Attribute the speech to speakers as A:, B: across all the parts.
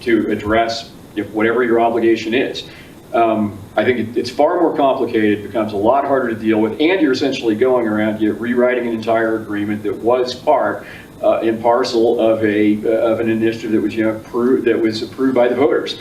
A: to address you know, whatever your obligation is. Um, I think it- it's far more complicated, becomes a lot harder to deal with, and you're essentially going around, you're rewriting an entire agreement that was part uh, and parcel of a, uh, of an initiative that was, you know, approved, that was approved by the voters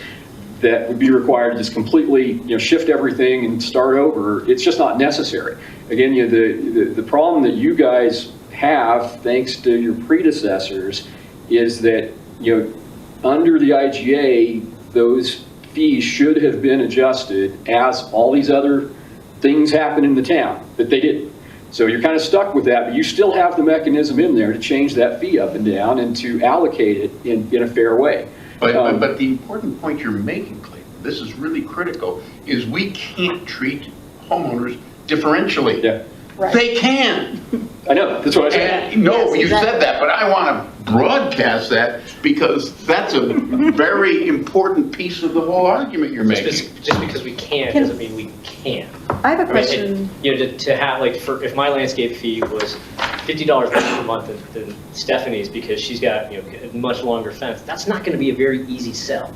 A: that would be required to just completely, you know, shift everything and start over. It's just not necessary. Again, you know, the, the, the problem that you guys have, thanks to your predecessors, is that, you know, under the IGA, those fees should have been adjusted as all these other things happen in the town, but they didn't. So you're kind of stuck with that, but you still have the mechanism in there to change that fee up and down and to allocate it in, in a fair way.
B: But,
A: Um,
B: but, but the important point you're making, Clayton, this is really critical, is we can't treat homeowners differentially.
A: Yeah.
C: Right.
B: They can.
A: I know, that's what I said.
B: And, no,
C: Yes,
B: you said
C: exactly.
B: that, but I want to broadcast that because that's a very important piece of the whole argument you're making.
D: Just just because we can
C: Can-
D: doesn't mean we can.
C: I have
D: I
C: a
D: mean, it-
C: question.
D: You know, to, to have, like, for, if my landscape fee was fifty dollars less per month than than Stephanie's because she's got, you know, a much longer fence, that's not gonna be a very easy sell.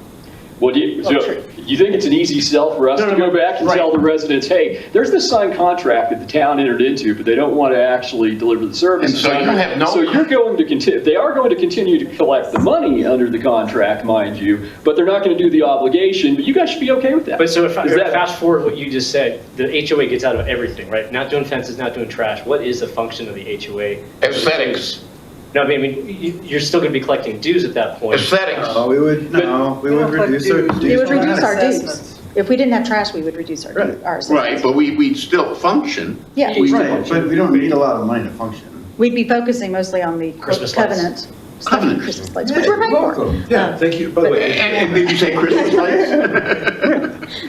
A: Well, do you, so
D: Oh, sure.
A: you think it's an easy sell for us
D: No,
A: to
D: no,
A: go
D: no,
A: back and
D: right.
A: tell the residents, hey, there's this signed contract that the town entered into, but they don't want to actually deliver the services.
B: And so you
A: under-
B: have no-
A: So you're going to continue, they are going to continue to collect the money under the contract, mind you, but they're not going to do the obligation, but you guys should be okay with that.
D: But so if, I-
A: Is that-
D: fast forward what you just said, the HOA gets out of everything, right? Not doing fences, not doing trash, what is the function of the HOA?
B: Aesthetics,
D: No, I mean, I mean, you, you're still gonna be collecting dues at that point.
B: aesthetics.
E: No, Uh, we would, no, we would reduce our.
C: We would reduce our dues.
F: Assessments.
C: If we didn't have trash, we would reduce our,
E: Right.
C: our
B: Right,
C: assessments.
B: but we, we still function.
C: Yeah,
B: We-
E: Right, but we don't need a lot of money to function.
C: we'd be focusing mostly on the
D: Christmas
C: covenant. stuff,
B: Covenant.
C: Christmas lights, which we're paying for.
E: Yeah, thank you, by the
B: And, and did you say Christmas lights?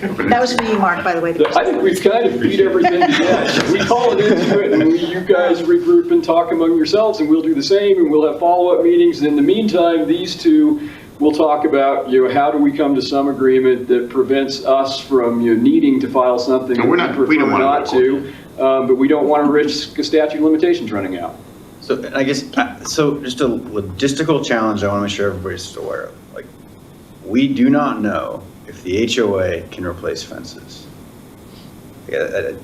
C: That was for you, Mark, by the way. the
A: I think we've kind of beat everything to death. We call it into it, and we- you guys regroup and talk among yourselves, and we'll do the same, and we'll have follow-up meetings. And in the meantime, these two will talk about, you know, how do we come to some agreement that prevents us from, you know, needing to file something that
B: And we're
A: we
B: not- we
A: prefer
B: don't wanna go
A: not
B: to court.
A: to, um, but we don't want to risk statute of limitations running out.
E: So and I guess, uh, so just a logistical challenge I want to make sure everybody's just aware of. Like, we do not know if the HOA can replace fences. Yeah, that-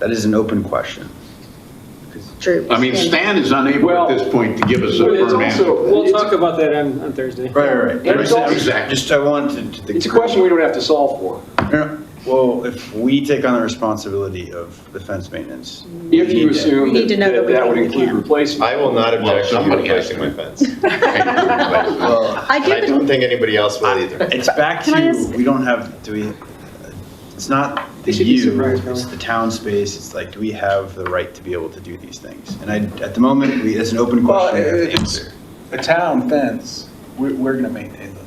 E: That is an open question.
C: True.
B: I mean, Stan is unable
A: Well-
B: at this point to give us a
A: But it's
B: firm answer.
A: also,
G: We'll
A: it's-
G: talk about that on, on Thursday.
E: Right, right,
A: And it's also-
B: Exactly.
E: Just, I wanted to.
A: it's a question we don't have to solve for.
E: No, no. Well, if we take on the responsibility of the fence maintenance.
A: If
E: we
A: you
E: need to-
A: assume
C: We need
A: that
C: to know
A: that
C: that we
A: that would
C: can.
A: include replacement.
H: I will not
B: Well,
H: object to you
B: somebody has
H: replacing
B: to.
H: my fence.
E: Well,
C: I
H: I
C: do,
H: don't think anybody else will either.
E: It's back
C: Can I
E: to,
C: ask-
E: we don't have, do we, it's not the
G: They should be
E: you,
G: surprised,
E: it's
G: Alan.
E: the town space, it's like, do we have the right to be able to do these things? And I, at the moment, we, it's an open
I: Well,
E: question. we have
I: if
E: to
I: it's
E: answer.
I: a town fence, we're, we're gonna maintain those.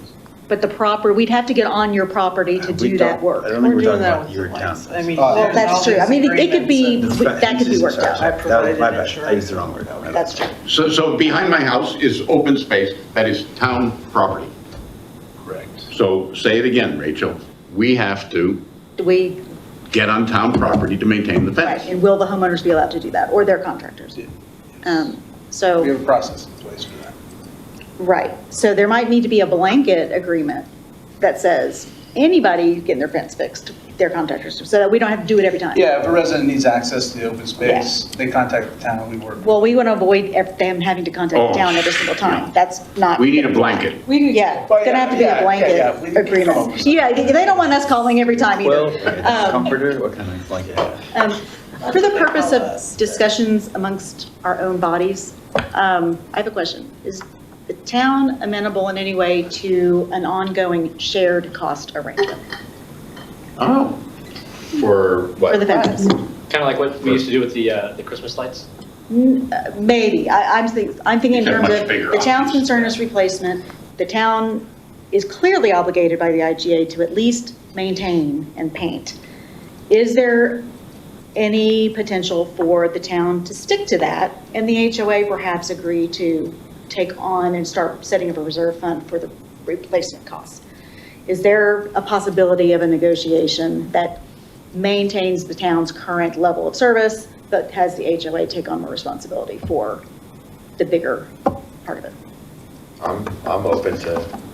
C: but the proper, we'd have to get on your property to
E: We
C: do
E: don't-
C: that
E: I
C: work. Uh,
E: don't think
F: We're
E: we're
F: doing
E: talking
F: that
E: about
F: with
E: your
F: the
E: town.
F: lights. I mean.
I: Oh,
C: Well, that's true. I mean, it- it could be-
E: The
C: that could be
E: fences,
C: worked
E: sorry,
C: out.
E: sorry,
F: I
E: that was-
F: provided
E: my bad. I
F: insurance.
E: used the wrong word. My bad.
C: That's true.
B: So, so behind my house is open space that is town property.
I: Correct.
B: So say it again, Rachel, we have to
C: Do we,
B: get on town property to maintain the
C: right,
B: fence.
C: and will the homeowners be allowed to do that, or their contractors? Um, So.
I: We have a process in place for that.
C: Right, so there might need to be a blanket agreement that says, anybody getting their fence fixed, their contractors, so that we don't have to do it every time.
I: Yeah, if a resident needs access to the open space, they contact the town, we work.
C: Well, we want to avoid ev- them having to contact the town every single time, that's not.
B: We need a blanket.
F: We do.
C: Yeah, it's
I: Well,
C: gonna have to be
I: Oh, yeah,
C: a
I: yeah, yeah,
C: blanket
I: we can come up
C: agreement.
I: with something.
C: Yeah, they they don't want us calling every time
E: Well,
C: either. Um,
E: comforter, what kind of blanket?
C: Um, For the purpose of discussions amongst our own bodies, um, I have a question. Is the town amenable in any way to an ongoing shared cost arrangement
B: Oh,
H: For
C: for the
H: what?
C: fences?
D: Kind of like what we used to do with the, uh, the Christmas lights.
C: N- uh, Maybe, I, I'm thinking, I'm thinking in
B: These are
C: terms
B: much
C: of,
B: bigger
C: the town's
B: options.
C: concern is replacement. The town is clearly obligated by the IGA to at least maintain and paint. Is there any potential for the town to stick to that? And the HOA perhaps agree to take on and start setting up a reserve fund for the replacement costs? Is there a possibility of a negotiation that maintains the town's current level of service, but has the HOA take on more responsibility for the bigger part of it?
H: I'm, I'm open to